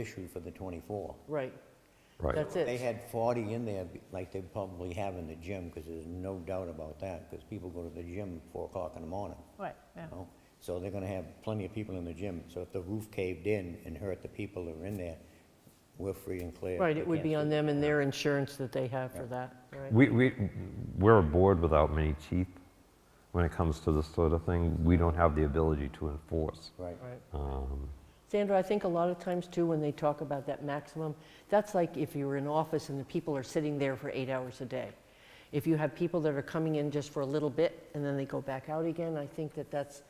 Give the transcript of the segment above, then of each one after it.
issued for the 24. Right, Right. that's They it. had 40 in there, be- like they probably have in the gym, because there's no doubt about that, because people go to the gym at 4 o'clock in the morning, Right, yeah. you know? So they're gonna have plenty of people in the gym, so if the roof caved in and hurt the people that are in there, we're free and clear. Right, They it would can't be sue. on them and their insurance that they have for that, right? We, we, we're a board without many teeth when it comes to this sort of thing. We don't have the ability to enforce. Right, Right. Um, Sandra, I think a lot of times too, when they talk about that maximum, that's like if you were in office and the people are sitting there for eight hours a day. If you have people that are coming in just for a little bit and then they go back out again, I think that that's,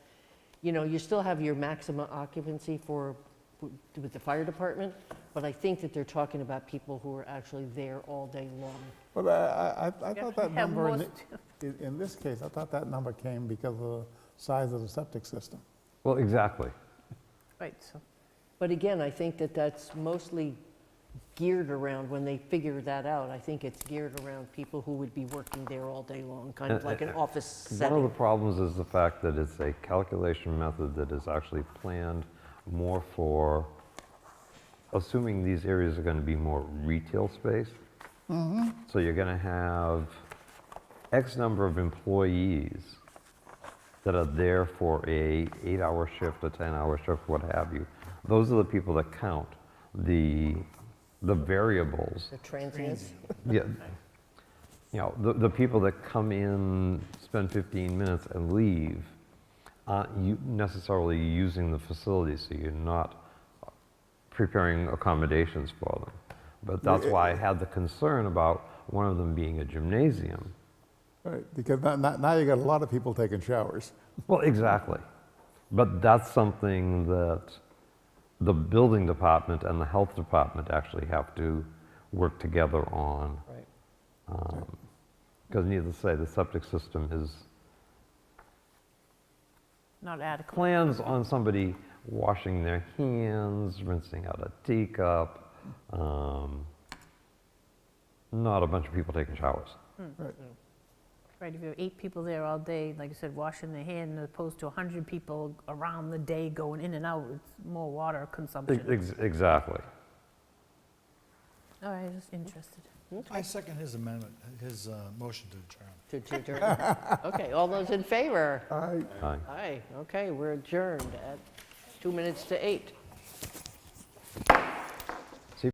you know, you still have your maximum occupancy for, with the fire department, but I think that they're talking about people who are actually there all day long. Well, I, I- I, I Yeah, thought that at number, in, most. thi- in- in this case, I thought that number came because of the size of the septic system. Well, exactly. Right, so, But again, I think that that's mostly geared around, when they figure that out, I think it's geared around people who would be working there all day long, kind of like an office One of the setting. problems is the fact that it's a calculation method that is actually planned more for, assuming these areas are going to be more retail space. So you're going to have X number of employees that are there for a eight-hour shift, a 10-hour shift, what have you. Those are the people that count. The, the variables The transients, yeah. You know, the, the people that come in, spend 15 minutes and leave, aren't u- necessarily using the facility, so you're not preparing accommodations for them. But that's why I had the concern about one of them being a gymnasium. Right, because now, now- now you got a lot of people taking showers. Well, exactly. But that's something that the building department and the health department actually have to work together on. right. Because needless to say, the septic system is not adequate. plans on somebody washing their hands, rinsing out a teacup, um, not a bunch of people taking showers. Right, if you have eight people there all day, like you said, washing their hand, as opposed to 100 people around the day going in and out, it's more water consumption. Ex- Exactly. All right, just interested. I second his amendment, his uh, motion to adjourn. To- to adjourn. Okay, all those in favor? I, Aye. Aye, okay, we're adjourned at two minutes to eight.